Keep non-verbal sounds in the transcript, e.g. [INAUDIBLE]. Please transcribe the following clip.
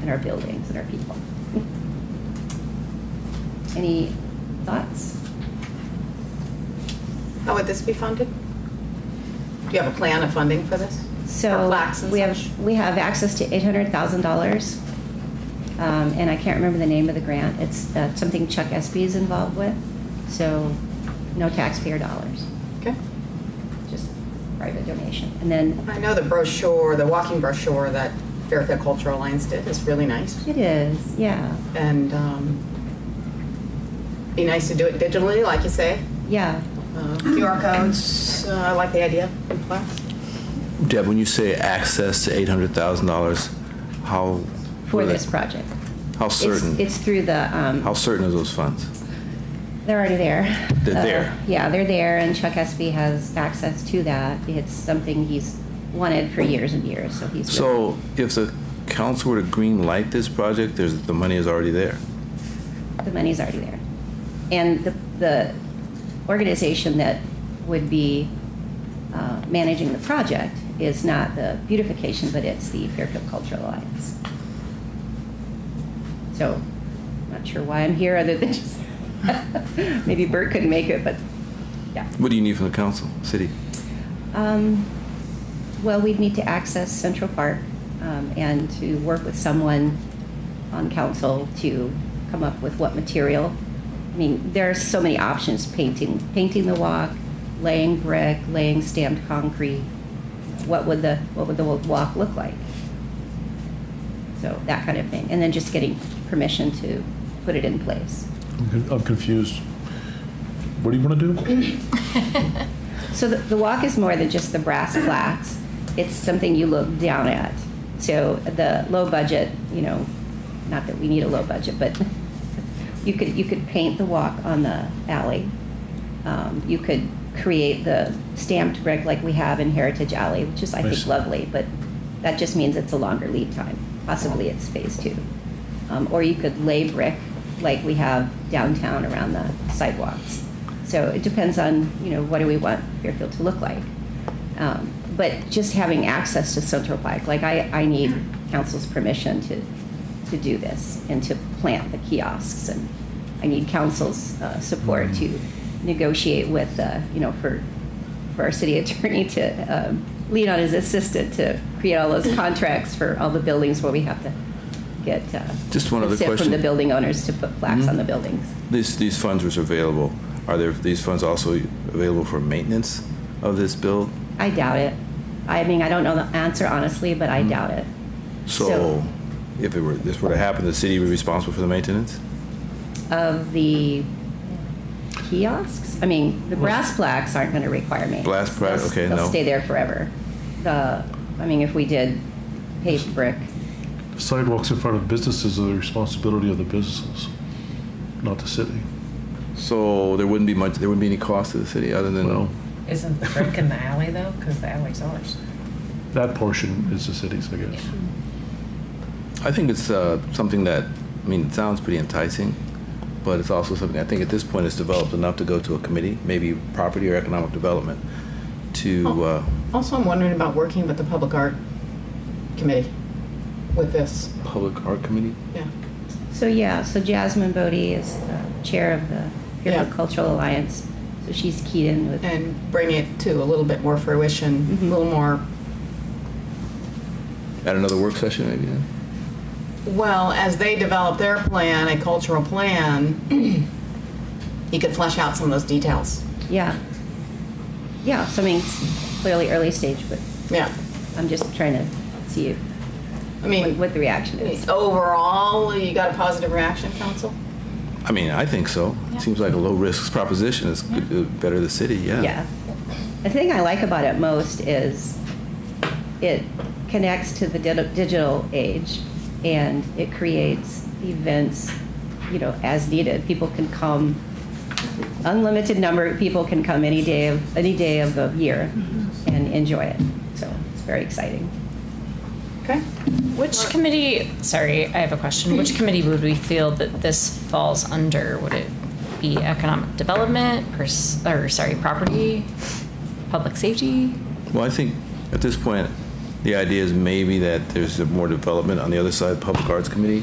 and our buildings and our people. Any thoughts? How would this be funded? Do you have a plan of funding for this? For So plaques and we such? have, we have access to eight hundred thousand dollars. Um, and I can't remember the name of the grant. It's uh, something Chuck Espy is involved with. So no taxpayer dollars, Okay. just private donation. And then I know the brochure, the walking brochure that Fairfield Cultural Alliance did is really nice. it is, yeah, And um, be nice to do it digitally, like you say. yeah. Uh, QR codes, uh, I like the idea in plaques. Deb, when you say access to eight hundred thousand dollars, how? for were they- this project. How It's- certain? It's through the, How um, certain are those funds? they're already there. They're Uh, there. Yeah, they're there, and Chuck Espy has access to that. It's something he's wanted for years and years, so he's. So if the council were to green light this project, there's, the money is already there. The money's already there. And the, the organization that would be uh, managing the project is not the beautification, but it's the Fairfield Cultural Alliance. So, not sure why I'm here, other than just, [LAUGHS] maybe Bert couldn't make it, but, yeah. What do you need from the council, city? Um, Well, we'd need to access Central Park um, and to work with someone on council to come up with what material. I mean, there are so many options, painting, painting the walk, laying brick, laying stamped concrete. What would the, what would the walk look like? So that kind of thing. And then just getting permission to put it in place. I'm con- I'm confused. What do you want to do? So the, the walk is more than just the brass plaques. It's something you look down at. So the low budget, you know, not that we need a low budget, but [LAUGHS] you could you could paint the walk on the alley. Um, you could create the stamped brick like we have in Heritage Alley, which is I think Nice. lovely, but that just means it's a longer lead time. Possibly it's phase two, um, or you could lay brick like we have downtown around the sidewalks. So it depends on, you know, what do we want Fairfield to look like? Um, But just having access to Central Park, like I, I need council's permission to, to do this and to plant the kiosks and I need council's uh, support to Mm-hmm. negotiate with, uh, you know, for, for our city [LAUGHS] attorney to um, lean on his assistant to create all those contracts for all the buildings where we have to get. uh, Just one consent From other question. Mm-hmm. the building owners to put plaques on the buildings. These, these funds which are available, are there, these funds also available for maintenance of this build? I doubt it. I mean, I don't know the answer honestly, but I doubt it. Mm-hmm. So if it were, this were to happen, the city would be responsible for the maintenance? Of the kiosks? I mean, the brass plaques aren't going to require me. Brass plaque, okay, They'll no. stay there forever. The, I mean, if we did paved brick, Sidewalks in front of businesses are the responsibility of the businesses, not the city. So there wouldn't be much, there wouldn't be any cost to the city other Well, than, Isn't the brick in the alley though? Because the alley's ours. that portion is the city's, I guess. I think it's uh, something that, I mean, it sounds pretty enticing, but it's also something I think at this point it's developed enough to go to a committee, maybe property or economic development, to, uh, Oh, Also, I'm wondering about working with the Public Art Committee with this. public art committee? Yeah. So yeah, so Jasmine Bodie is the chair of the Fairfield Yeah. Cultural Alliance, so she's keyed in with. And bring it to a little bit more fruition, a Mhm. little more, At another work session, maybe, then? well, as they develop their plan, a cultural plan, you could flesh out some of those details. Yeah. Yeah, so I mean, it's clearly early stage, but Yeah. I'm just trying to see if- I mean, what the reaction is. overall, you got a positive reaction, council? I mean, I think so. It Seems like a low-risk proposition. It's good- uh, better the city, yeah. Yeah. The thing I like about it most is it connects to the digi- digital age and it creates events, you know, as needed. People can come, unlimited number of people can come any day of, any day of the year and enjoy it. So it's very exciting. Okay. Which committee, sorry, I have a question. Which committee would we feel that this falls under? Would it be economic development, pers- or sorry, property, public safety? Well, I think at this point, The idea is maybe that there's more development on the other side, Public Arts Committee,